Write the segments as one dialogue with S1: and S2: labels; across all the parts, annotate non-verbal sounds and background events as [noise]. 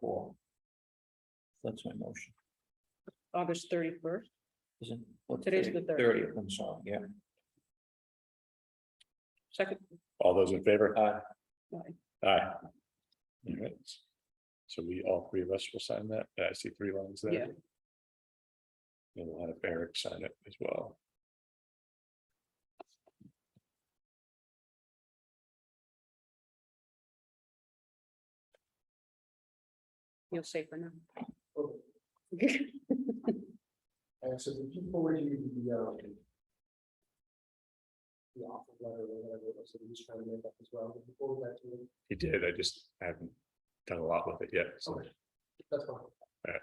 S1: four. That's my motion,
S2: August thirty-first.
S1: isn't? what's
S2: Today's
S1: today?
S2: the third.
S1: Thirtieth, I'm sorry, yeah.
S2: Second,
S3: All those in favor?
S1: Aye.
S3: Aye. All right. So we, all three of us will sign that. I see three lines there.
S2: Yeah.
S3: And we'll have Eric sign it as well.
S2: you'll say for now.
S4: And so the people were you the, um. The offer letter or whatever, it was, so we just trying to make up as well, before that, to me,
S3: He did. I just haven't done a lot with it yet. So
S4: Okay. that's fine.
S3: Yeah.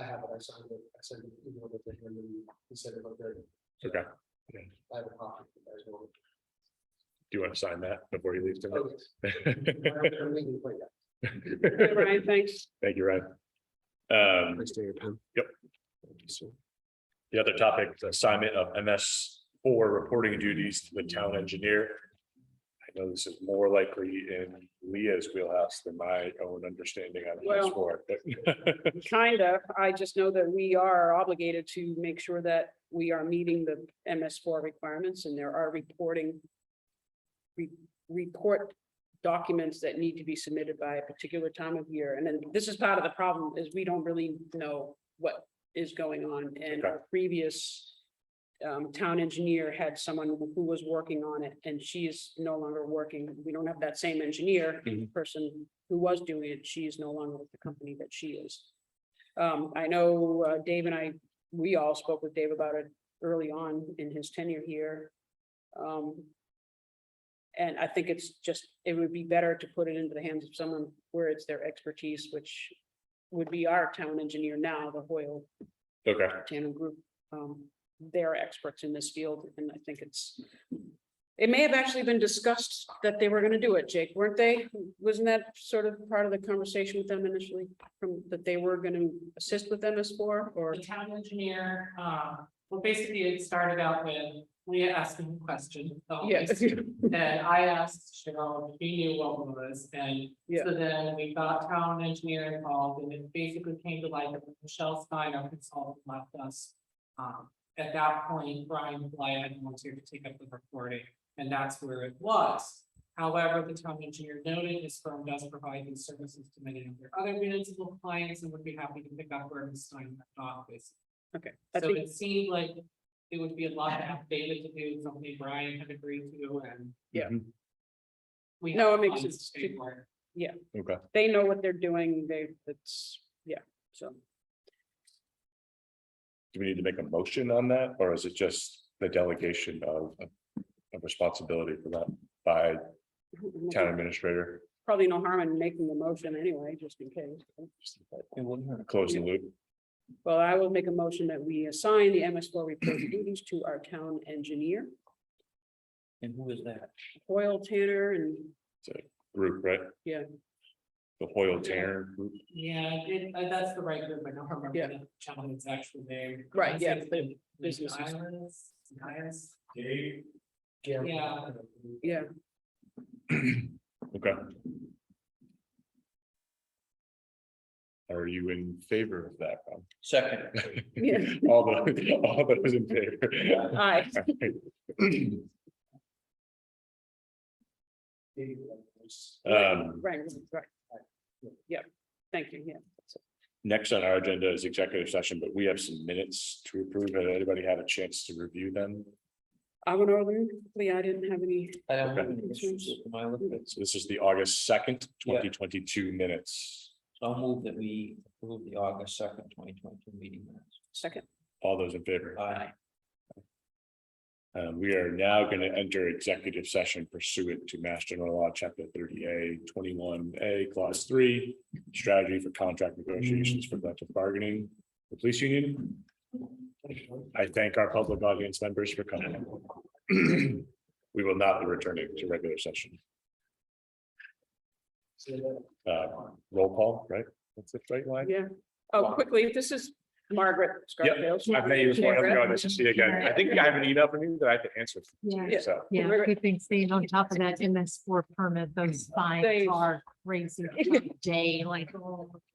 S4: I have it, I signed it, I sent it, you know, with him, and then he said about there,
S3: Okay.
S4: I have a copy as well.
S3: Do you want to sign that before you leave
S4: Okay. [laughs]
S3: tonight?
S4: I'm leaving right now.
S2: Brian, thanks.
S3: [laughs] Thank you, Ryan. Um,
S4: Please do your pen.
S3: Yep. The other topic, the assignment of MS four reporting duties to the town engineer. I know this is more likely in Leah's wheelhouse than my own understanding on MS
S2: Well-
S3: four, but. [laughs]
S2: Kind of, I just know that we are obligated to make sure that we are meeting the MS four requirements and there are reporting. re- report documents that need to be submitted by a particular time of year. And then this is part of the problem is we don't really know what is going on and our previous. Um, town engineer had someone who was working on it and she is no longer working. We don't have that same engineer. The
S3: Mhm.
S2: Person who was doing it, she is no longer with the company that she is. Um, I know uh, Dave and I, we all spoke with Dave about it early on in his tenure here. Um, and I think it's just, it would be better to put it into the hands of someone where it's their expertise, which would be our town engineer now, the Hoyle
S3: Okay,
S2: Tandem Group. Um, they're experts in this field, and I think it's, it may have actually been discussed that they were gonna do it, Jake, weren't they? Wasn't that sort of part of the conversation with them initially, from, that they were gonna assist with MS four, or?
S5: The town engineer, um, well, basically it started out with Leah asking a question. so
S2: Yeah.
S5: And I asked Cheryl if she knew what it was, and
S2: Yeah.
S5: so then we got town engineer involved, and it basically came to light that Michelle Stein, our consultant, left us. Um, at that point, Brian Blyer volunteered to take up the recording, and that's where it was. However, the town engineer noted his firm does provide these services to many of their other municipal clients and would be happy to pick up where Ms. Stein left off, basically.
S2: [laughs] Okay, I
S5: So
S2: think-
S5: it seemed like it would be a lot to have David to do, something Brian had agreed to and.
S2: Yeah.
S5: We.
S2: No,
S5: have
S2: it makes
S5: funds
S2: sense
S5: to pay
S2: to-
S5: for it.
S3: okay.
S2: they know what they're doing, they, that's, yeah, so.
S3: Do we need to make a motion on that, or is it just the delegation of, of responsibility for that by town administrator?
S2: Probably no harm in making the motion anyway, just in case.
S1: It wouldn't hurt.
S3: Close the loop.
S2: Well, I will make a motion that we assign the MS four report duties to our town engineer,
S1: And who is that?
S2: Hoyle Tanner, and
S3: Group, right?
S2: Yeah.
S3: The Hoyle Tanner group. [clears throat]
S5: Yeah, it, uh, that's the right group, I don't remember
S2: Yeah,
S5: the gentleman's actual name.
S2: Right, yeah,
S5: Is it
S2: the businesses.
S5: Islands, Nias?
S4: Yeah.
S3: [laughs]
S2: yeah,
S3: Okay. Are you in favor of that? Rob?
S1: Second,
S2: Yeah.
S3: [laughs] All the, all those in favor?
S2: [laughs] aye,
S3: Um,
S2: right, right. Yeah, thank you, yeah.
S3: next on our agenda is executive session, but we have some minutes to approve. Has anybody had a chance to review them?
S2: I went over, them quickly. I didn't have any,
S1: I don't have any issues with my list.
S3: So This is the August second,
S1: Yeah.
S3: twenty twenty-two minutes.
S1: So I'll move that we approve the August second, twenty twenty-two meeting minutes.
S2: second,
S3: All those in favor?
S1: Aye.
S3: Uh, we are now going to enter executive session pursuant to Mass General Law, Chapter thirty A, twenty-one A, Clause three. Strategy for contract negotiations for collective bargaining, the police union. I thank our public audience members for coming. [clears throat] We will not be returning to regular session. Uh, roll call, right? That's the right line?
S2: yeah. Oh, quickly, this is, Margaret Scarfield.
S3: I've met you before. I have to go on this to see you again. I think I have an email from you that I have to answer. to,
S6: Yeah.
S3: So.
S6: Yeah,
S2: Right.
S6: good thing staying on top of that MS four permit, those fines
S2: They-
S6: are crazy, day like. oh.